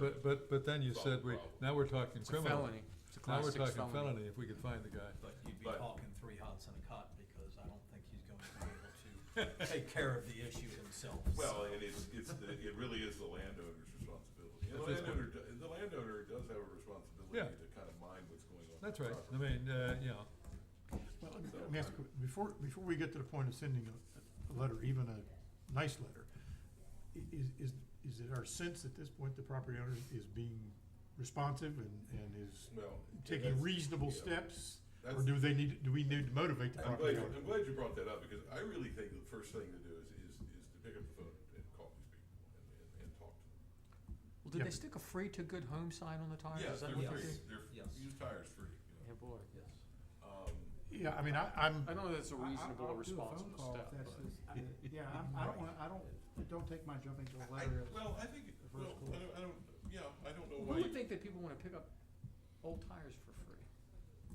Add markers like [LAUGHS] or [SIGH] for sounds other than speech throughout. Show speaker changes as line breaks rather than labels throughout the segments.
But, but, but then you
Solve the
said we,
problem.
now we're talking
It's a
criminal.
felony, it's a
Now
class
we're
six
talking felony, if we could find the guy.
But you'd be
But-
talking three hots in a cot, because I don't think he's going to be able to take care of the issue himself.
Well, and it's, it's, the- it really is the landowner's responsibility. And
At
The
this point.
landowner, do- the landowner does have a responsibility
Yeah.
to kind of mind what's going on.
That's
with
right, I
the property.
mean, uh, you know,
Well, let me- let me ask, you a que- before, before we get to the point of sending a, a letter, even a nice letter, i- is, is, is it our sense at this point the property owner is being responsive and, and is
Well, yeah,
taking
that's-
reasonable
yeah.
steps? Or
That's-
do they need, do we need to motivate the
I'm
property
glad, you-
owner?
I'm glad you brought that up, because I really think the first thing to do is, is, is to pick up the phone and call these people and, and, and talk to them.
Well, did
Yeah.
they stick a free to good home sign on the tires?
Yes,
Is that
they're
what they
free.
did?
free, they're,
Yes.
used tires free, you
Yeah,
know.
boy.
Yes.
Um,
Yeah, I mean, I, I'm,
I don't know if that's a
I- I-
reasonable,
I'll do a phone
responsible
call if
step,
that's
but.
the- I- Yeah, I'm- I don't wanna, I don't, don't take my jumping to a
I,
letter as.
well, I think,
the first
well,
call.
I don't, I don't, yeah, I don't know
Who
why. you-
would think that people wanna pick up old tires for free?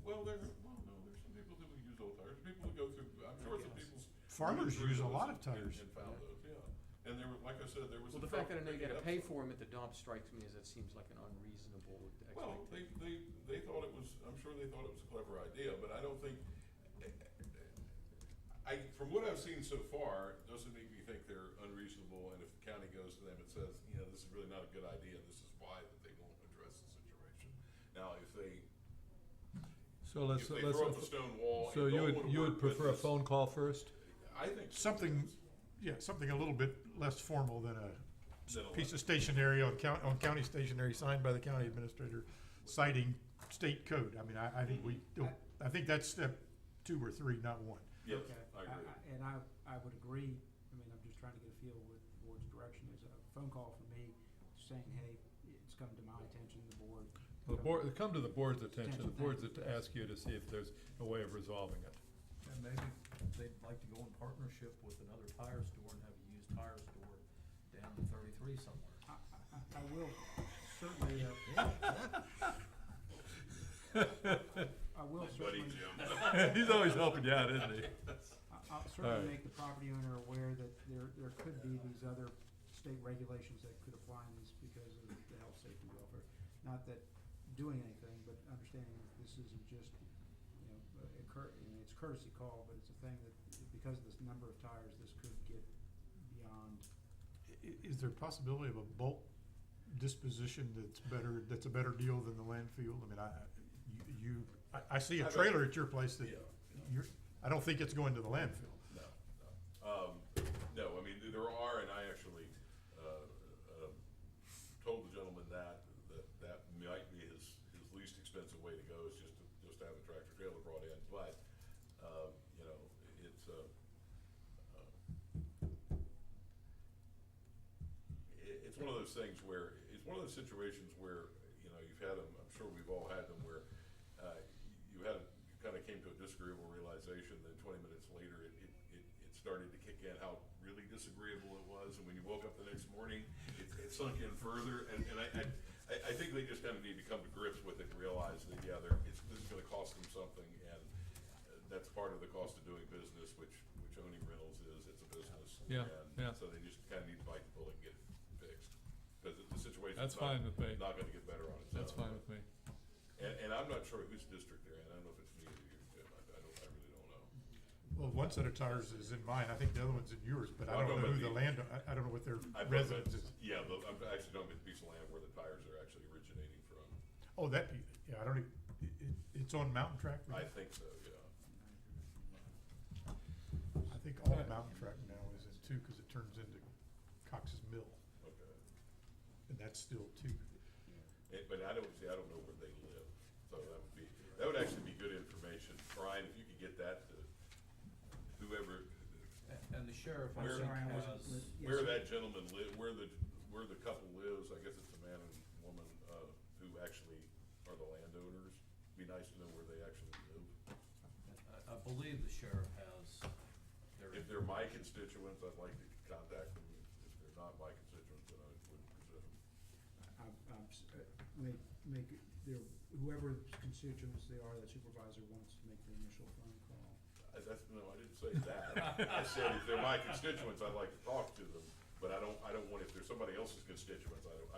Well, there, well, no, there's some people that would use old tires, people would go through, I'm sure some
guess.
people's.
farmers
through
use a
those
lot of
and-
tires.
And found those, yeah, and there were, like I said, there was.
Well,
a
the fact that I
truck
know you
picking
gotta
up
pay
some-
for them at the dump strikes me as that seems like an unreasonable
Well,
expectation.
they, they, they thought it was, I'm sure they thought it was a clever idea, but I don't think, I, from what I've seen so far, it doesn't make me think they're unreasonable, and if the county goes to them and says, you know, this is really not a good idea, this is why, that they won't address the situation. Now, if they,
so let's,
if they
let's,
throw up a stone wall
so
and
you
don't
would,
wanna
you would
work with
prefer a
this-
phone call first?
I think. so.
Something, yeah, something a little bit less formal than a
Then a
piece of stationery on county, on county stationery signed by the county administrator citing state code. I mean, I, I think we, don't- I think that's step two or three, not one.
Yes,
Okay.
I agree.
And I, I would agree, I mean, I'm just trying to get a feel with the board's direction, is a phone call from me saying, hey, it's come to my attention, the board.
The board, come to the board's attention,
Attention,
the
thank
board's
you.
to ask you to see if there's a way of resolving it.
And maybe they'd like to go in partnership with another tire store and have a used tire store down in thirty-three somewhere.
I, I, I will certainly,
[LAUGHS]
uh, I will
My buddy
certainly,
Jim.
[LAUGHS]
He's always helping you out, isn't he?
I- I'll
Alright.
certainly make the property owner aware that there, there could be these other state regulations that could apply in this because of the health, safety, welfare. Not that doing anything, but understanding that this isn't just, you know, a cur- you know, it's courtesy call, but it's a thing that, because of this number of tires, this could get beyond.
I- is there a possibility of a bulk disposition that's better, that's a better deal than the landfill? I mean, I, you- you, I, I see a
I've-
trailer at your place that
Yeah.
you're, I don't think it's going to the landfill.
No, no. Um, no, I mean, there are, and I actually, uh, uh, told the gentleman that, that, that might be his, his least expensive way to go is just to, just to have a tractor trailer brought in, but, um, you know, it's, uh, uh, it, it's one of those things where, it's one of those situations where, you know, you've had them, I'm sure we've all had them where, uh, you had, you kinda came to a disagreeable realization, then twenty minutes later, it, it, it, it started to kick in how really disagreeable it was, and when you woke up the next morning, it, it sunk in further, and, and I, I, I, I think they just kinda need to come to grips with it, and realize that, yeah, they're, it's, this is gonna cost them something, and uh, that's part of the cost of doing business, which, which owning rentals is, it's a business.
Yeah, yeah.
And so they just kinda need to bite the bullet and get it fixed, cause the- the situation's
That's
not,
fine with me,
not gonna get better on its own.
that's fine with me.
And, and I'm not sure whose district they're in, I don't know if it's me or you, Jim, I, I don't, I really don't know.
Well, one set of tires is in mine, I think the other one's in yours, but
Well,
I
I know
don't know
about
who the
the-
land, I, I don't know what their
I bet
residence is.
that's- Yeah, but I'm actually talking about the piece of land where the tires are actually originating from,
Oh, that, be- yeah, I don't even, it, it, it's on Mountain Track, now?
I
I
think so, yeah.
think all of Mountain Track now is in two, cause it turns into Cox's Mill,
Okay.
and that's still two.
It, but I don't, see, I don't know where they live, so that would be, that would actually be good information. Brian, if you could get that to whoever,
And the sheriff,
Where-
Was it- yes,
where
sir.
that gentleman li, where the, where the couple lives, I guess it's a man and woman, uh, who actually are the landowners. Be nice to know where they actually live.
I, I believe the sheriff has their.
If they're my constituents, I'd like to contact them. If they're not my constituents, then I wouldn't present them.
I'm, I'm, s- uh, make, make, their, whoever constituents they are, that supervisor wants to make the initial phone call.
I- That's, no, I didn't say
[LAUGHS]
that. I said if they're my constituents, I'd like to talk to them, but I don't, I don't want, if they're somebody else's constituents, I